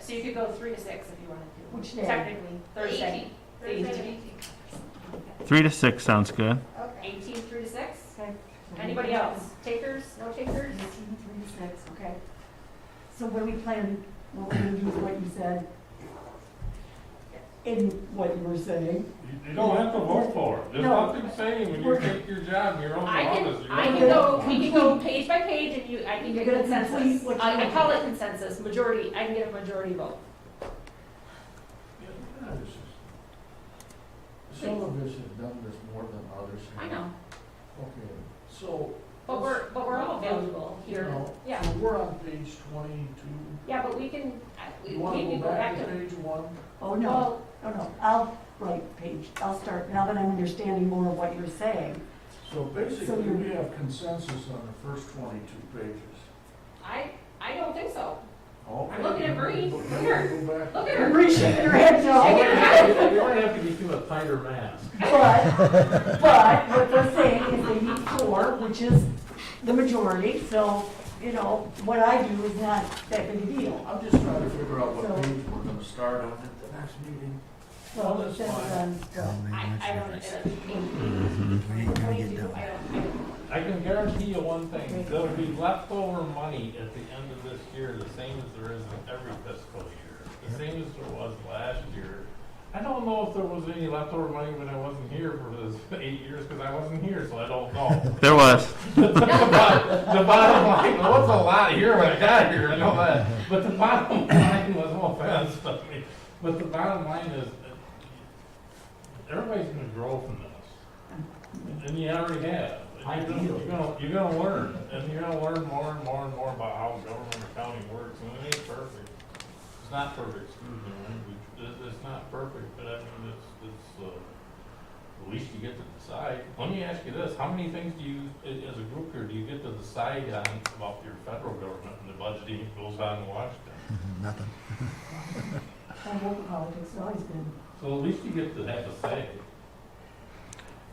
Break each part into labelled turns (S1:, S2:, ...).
S1: So you could go three to six if you wanted to.
S2: Which day?
S1: Technically, Thursday. The
S3: Thursday, the
S1: 18th.
S4: 3 to 6 sounds good.
S2: Okay.
S1: 18 through to six?
S2: Okay.
S1: Anybody else? Takers, no takers?
S2: Eighteen, three to six, okay. So what do we plan, what we're gonna do with what you said? In what you were saying?
S5: You don't have to vote for it. There's
S2: No.
S5: nothing saying when you
S2: We're-
S5: take your job, your own
S1: I
S5: office.
S1: can,
S5: you're
S1: I
S5: not
S1: can
S5: gonna-
S1: go, we can go page by page and you, I can
S2: You're
S1: get a
S2: gonna complete
S1: consensus.
S2: what
S1: I
S2: you-
S1: I call it consensus, majority, I can get a majority vote.
S5: Yeah, this is-
S6: Some of us have done this more than others. have.
S1: I know,
S6: Okay, so.
S1: but we're, but we're all valuable
S6: You
S1: here.
S6: know,
S1: Yeah,
S6: so we're on page twenty-two.
S1: yeah, but we can, I- we
S6: You wanna
S1: we
S6: go
S1: can go back to.
S6: page one?
S2: Oh, no,
S1: Well,
S2: no, no, I'll write page, I'll start, now that I'm understanding more of what you're saying.
S6: So
S2: So
S6: basically,
S2: you're-
S6: we have consensus on the first twenty-two pages.
S1: I, I don't think so.
S6: Okay.
S1: looking at Bree.
S6: Go
S1: Look at her.
S6: back.
S1: Look at her.
S2: Appreciate your head, Joe.
S5: You might have to give him a tighter mask.
S2: But, but what they're saying is they need four, which is the majority, so, you know, what I do is not that big a deal.
S6: I'm just trying to figure out
S2: So-
S6: what page we're gonna start on at the next meeting. Well,
S2: Well,
S6: that's
S2: that's,
S6: fine.
S2: um,
S1: I, I don't, I don't, I don't, I don't.
S5: I can guarantee you one thing, there'll be leftover money at the end of this year, the same as there is in every fiscal year, the same as there was last year. I don't know if there was any leftover money when I wasn't here for this eight years, because I wasn't here, so I don't know.
S4: There was.
S5: The bottom line, there was a lot here when I got here, I know that, but the bottom line was, no offense, but, I mean, but the bottom line is, uh, everybody's gonna grow from this. And you already have. And you're gonna- You're gonna, you're gonna learn, and you're gonna learn more and more and more about how government and county works, and it ain't perfect. It's not perfect, excuse me, language, it, it's not perfect, but I mean, it's, it's, uh, at least you get to decide. Let me ask you this, how many things do you, a- as a group here, do you get to decide on about your federal government and the budgeting that goes on in Washington?
S2: I hope politics has always been.
S5: So at least you get to have a say.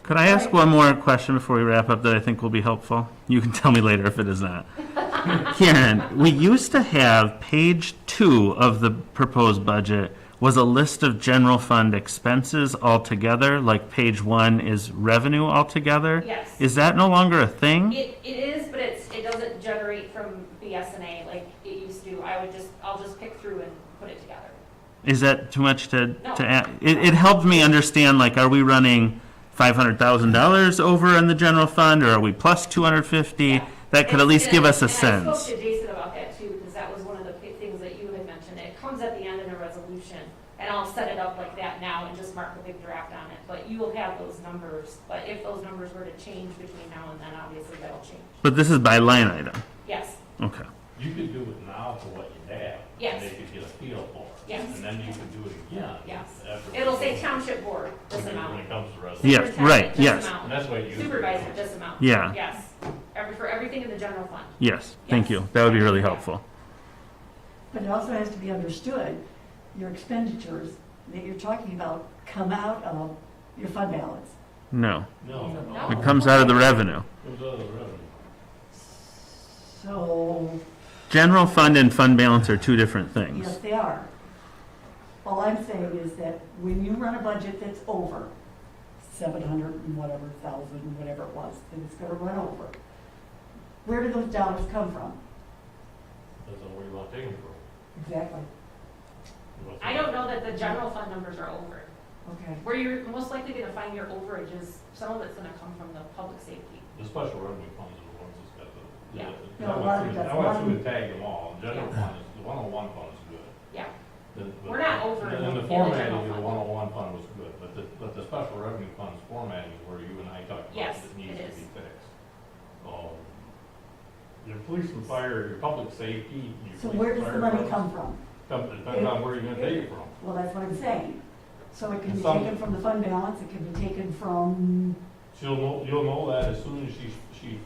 S4: Could I ask one more question before we wrap up that I think will be helpful? You can tell me later if it is not. Karen, we used to have page two of the proposed budget was a list of general fund expenses altogether, like page one is revenue altogether.
S1: Yes.
S4: Is that no longer a thing?
S1: It, it is, but it's, it doesn't generate from BSNA like it used to. I would just, I'll just pick through and put it together.
S4: Is that too much to,
S1: No.
S4: to add? It, it helped me understand, like, are we running five hundred thousand dollars over in the general fund, or are we plus two hundred fifty?
S1: Yeah.
S4: That could at
S1: And-
S4: least give us a
S1: and I- And I
S4: sense.
S1: spoke to Jason about that too, because that was one of the big things that you had mentioned. It comes at the end in a resolution, and I'll set it up like that now and just mark a big draft on it. But you will have those numbers, but if those numbers were to change between now and then, obviously that'll change.
S4: But this is by line item.
S1: Yes,
S4: Okay.
S5: You could do it now for what you have.
S1: Yes.
S5: And they could get a feel for it.
S1: Yes.
S5: And then you could do it again.
S1: Yes.
S5: after-
S1: it'll say township board, this
S5: When it
S1: amount.
S5: comes to resolution.
S4: Yeah,
S1: Superintendent,
S4: right,
S1: this
S4: yes.
S1: amount.
S5: And that's why you.
S1: Supervisor, this amount.
S4: Yeah.
S1: Yes, every, for everything in the general fund.
S4: Yes. Thank you. That would be really helpful.
S2: But it also has to be understood, your expenditures that you're talking about come out of your fund balance.
S4: No.
S5: No.
S1: No.
S4: It comes out of the revenue.
S5: Comes out of the revenue.
S2: So,
S4: General fund and fund balance are two different things.
S2: yes, they are. All I'm saying is that when you run a budget that's over seven hundred and whatever thousand, whatever it was, that it's gonna run over, where do those dollars come from?
S5: That's not where you want to take them from.
S2: Exactly.
S5: You want to-
S1: I don't know that the general fund numbers are over.
S2: Okay.
S1: Where you're most likely gonna find your overages, some of it's gonna come from the public safety.
S5: The special revenue funds are the ones that's got the.
S1: Yeah.
S5: the-
S2: No, a
S5: I
S2: lot
S5: went
S2: of
S5: through-
S2: that's
S5: I went
S2: one-
S5: through and tagged them all, the general
S1: Yeah.
S5: fund is, the one oh one fund is good.
S1: Yeah.
S5: The- but-
S1: We're not over
S5: and
S1: in the-
S5: then
S1: in
S5: the
S1: the
S5: formatting
S1: general
S5: of the
S1: fund.
S5: one oh one fund was good, but the, but the special revenue funds formatting is where you and I talked about,
S1: Yes,
S5: it needs
S1: it
S5: to
S1: is.
S5: be fixed. Um, Your police and fire, your public safety, your police and fire.
S2: So where does the money come from?
S5: Come, depends on where you're gonna take it from.
S2: Well, that's what I'm saying. So it can be
S5: Some-
S2: taken from the fund balance, it can be taken from,
S5: She'll know, you'll know that as soon as she, she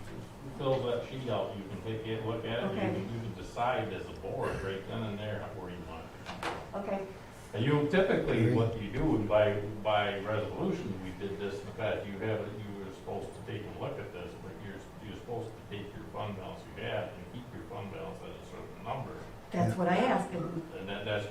S5: fills that sheet out, you can take it, look at it, you
S2: Okay.
S5: can, you can decide as a board right then and there where you want it.
S2: okay,
S5: And you typically, what you do, and by, by resolution, we did this in the past, you have, you were supposed to take a look at this, but you're, you're supposed to take your fund balance you have and keep your fund balance at a certain number.
S2: that's what I asked, and
S5: And that, that's